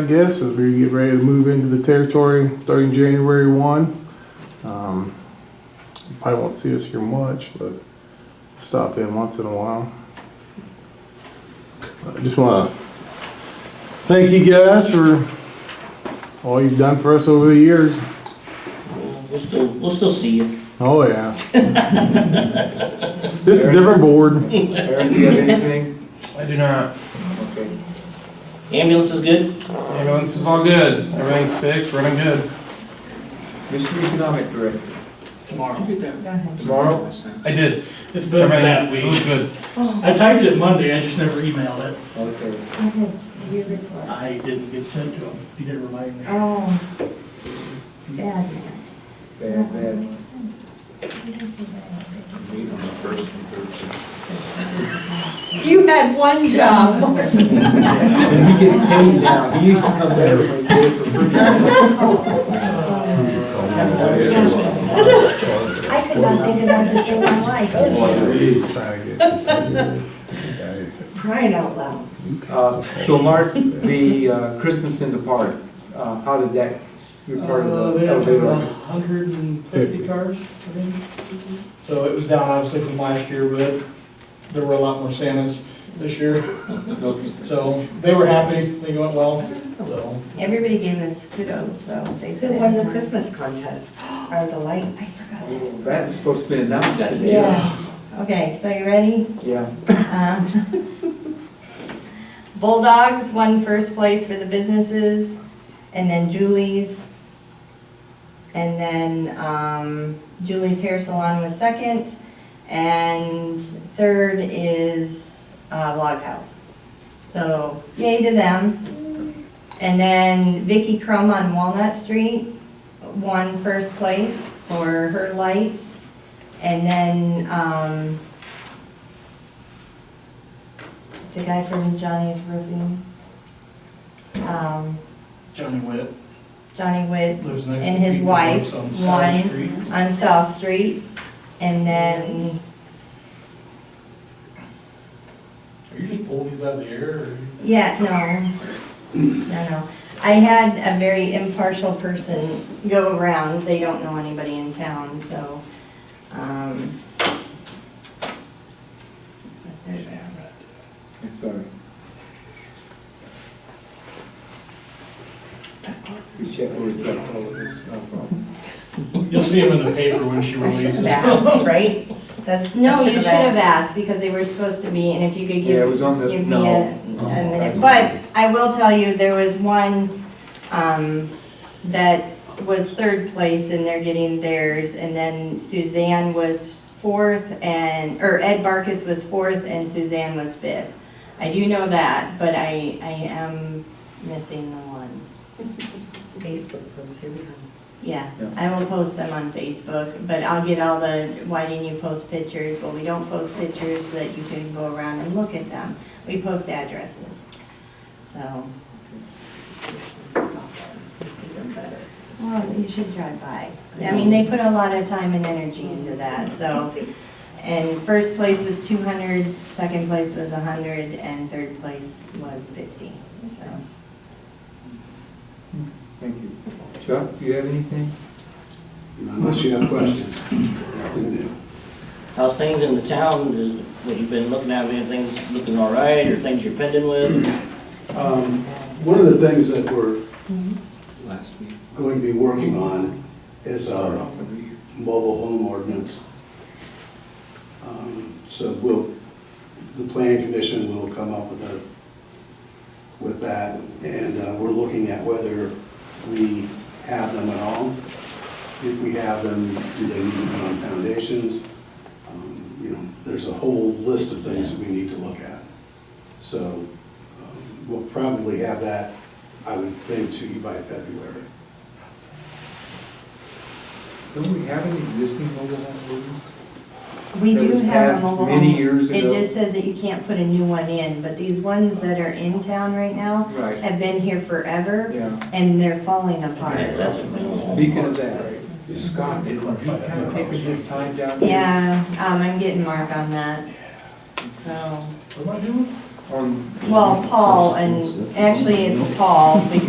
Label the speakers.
Speaker 1: I guess, as we get ready to move into the territory starting January one. Um, you Probably won't see us here much, but stop in once in a while. I just wanna thank you guys for all you've done for us over the years.
Speaker 2: We'll still, we'll still see you.
Speaker 1: Oh, yeah. This is a different board.
Speaker 3: Aaron, do you have anything?
Speaker 4: I do not.
Speaker 3: Okay.
Speaker 2: Ambulance is good?
Speaker 4: Ambulance is all good. Everything's fixed, running good.
Speaker 3: Mr. Economic Director,
Speaker 5: tomorrow.
Speaker 3: tomorrow?
Speaker 4: I did.
Speaker 5: It's been
Speaker 4: Everything-
Speaker 5: that
Speaker 4: It was
Speaker 5: week.
Speaker 4: good.
Speaker 5: I typed it Monday, I just never emailed it.
Speaker 3: Okay.
Speaker 5: I didn't get sent to him. You didn't remind me.
Speaker 6: Oh, bad
Speaker 3: Bad, bad.
Speaker 6: You had one job.
Speaker 3: And he gets paid now. He used to come there every day for free.
Speaker 6: I could not think about this in my life. Crying out loud.
Speaker 3: Uh, So Mark, the uh, Christmas in the park, uh, how did that, you're part
Speaker 5: Uh,
Speaker 3: of the
Speaker 5: They had
Speaker 3: elevator?
Speaker 5: about hundred and fifty cars, I think. So it was down obviously from last year, but there were a lot more Santas this year. So they were happy, they went well, so.
Speaker 7: Everybody gave us kudos, so they said.
Speaker 6: Who won the
Speaker 7: it's nice.
Speaker 6: Christmas contest? Are the lights?
Speaker 3: Oh, That was supposed to be announced today.
Speaker 6: Yes.
Speaker 7: Okay, so you ready?
Speaker 3: Yeah.
Speaker 7: Um, Bulldogs won first place for the businesses, and then Julie's. And then um, Julie's Hair Salon was second, and third is uh, Log House. So yay to them. And then Vicky Crum on Walnut Street won first place for her lights. And then, um, the guy from Johnny's Roofing, um,
Speaker 5: Johnny Witt
Speaker 7: Johnny Witt
Speaker 5: lives next to me.
Speaker 7: and his wife
Speaker 5: On South Street.
Speaker 7: won on South Street. And then,
Speaker 5: Are you just pulling these out of the air or?
Speaker 7: yeah, no, no, no. I had a very impartial person go around, they don't know anybody in town, so, um. but there's-
Speaker 3: I'm Sorry. We check where it's at, all of this, no problem.
Speaker 5: You'll see him in the paper when she
Speaker 7: I should
Speaker 5: releases.
Speaker 7: have asked,
Speaker 6: Right?
Speaker 7: that's, no, you should have asked, because they were supposed to be, and if you could give.
Speaker 3: Yeah, it was on the-
Speaker 7: give me
Speaker 3: no.
Speaker 7: a- a minute, but I will tell you, there was one, um, that was third place, and they're getting theirs, and then Suzanne was fourth, and, or Ed Barkus was fourth, and Suzanne was fifth. I do know that, but I, I am missing the one.
Speaker 6: Facebook post, here we go.
Speaker 7: Yeah,
Speaker 3: Yeah.
Speaker 7: I will post them on Facebook, but I'll get all the, why didn't you post pictures? Well, we don't post pictures so that you can go around and look at them. We post addresses, so.
Speaker 6: It's even better.
Speaker 7: Well, you should drive by. I mean, they put a lot of time and energy into that, so. And first place was two hundred, second place was a hundred, and third place was fifty, so.
Speaker 3: Thank you. Chuck, do you have anything?
Speaker 8: Unless you have questions, nothing new.
Speaker 2: How's things in the town? Is what you've been looking at, anything's looking all right, or things you're pending with?
Speaker 8: Um, One of the things that we're going to be working on is um,
Speaker 3: Start
Speaker 8: our
Speaker 3: off with you.
Speaker 8: mobile home ordinance. Um, So we'll, the plan commission will come up with a, with that, and uh, we're looking at whether we have them at all. If we have them, do they need to be on foundations? Um, You know, there's a whole list of things that we need to look at. So um, we'll probably have that, I would think, to you by February.
Speaker 3: Don't we have an existing mobile home ordinance?
Speaker 7: We
Speaker 3: That
Speaker 7: do
Speaker 3: was
Speaker 7: have a
Speaker 3: passed
Speaker 7: mobile home.
Speaker 3: many years ago.
Speaker 7: It just says that you can't put a new one in, but these ones that are in town right now
Speaker 3: Right,
Speaker 7: have been here forever,
Speaker 3: yeah.
Speaker 7: and they're falling apart.
Speaker 2: Yeah, that's a minimal.
Speaker 3: Speaking of that, Scott, is he kind of taking his time down there
Speaker 7: Yeah, um, I'm getting Mark on that, so,
Speaker 5: What am I doing?
Speaker 3: on
Speaker 7: well, Paul, and actually it's Paul, because